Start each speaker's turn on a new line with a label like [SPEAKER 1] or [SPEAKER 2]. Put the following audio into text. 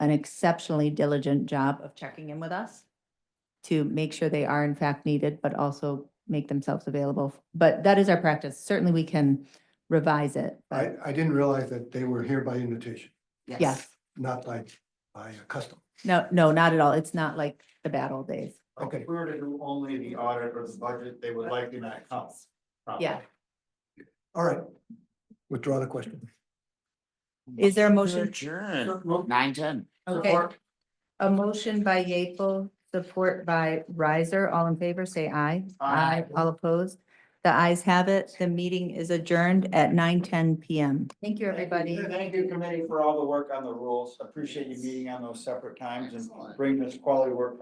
[SPEAKER 1] an exceptionally diligent job of checking in with us to make sure they are in fact needed, but also make themselves available. But that is our practice. Certainly, we can revise it,
[SPEAKER 2] I,
[SPEAKER 1] but
[SPEAKER 2] I didn't realize that they were here by invitation,
[SPEAKER 1] yes.
[SPEAKER 2] not like by custom.
[SPEAKER 1] No, no, not at all. It's not like the bad old days.
[SPEAKER 2] Okay.
[SPEAKER 3] If we were to do only the audit or the budget, they would likely not come.
[SPEAKER 1] Yeah.
[SPEAKER 2] All right. Withdraw the question.
[SPEAKER 1] Is there a motion?
[SPEAKER 4] Adjourn, nine ten.
[SPEAKER 1] Okay. A motion by Yeaple, support by Riser. All in favor, say aye.
[SPEAKER 3] Aye.
[SPEAKER 1] All opposed? The ayes have it. The meeting is adjourned at nine ten PM. Thank you, everybody.
[SPEAKER 3] Thank you, committee, for all the work on the rules. Appreciate you meeting on those separate times and bringing this quality work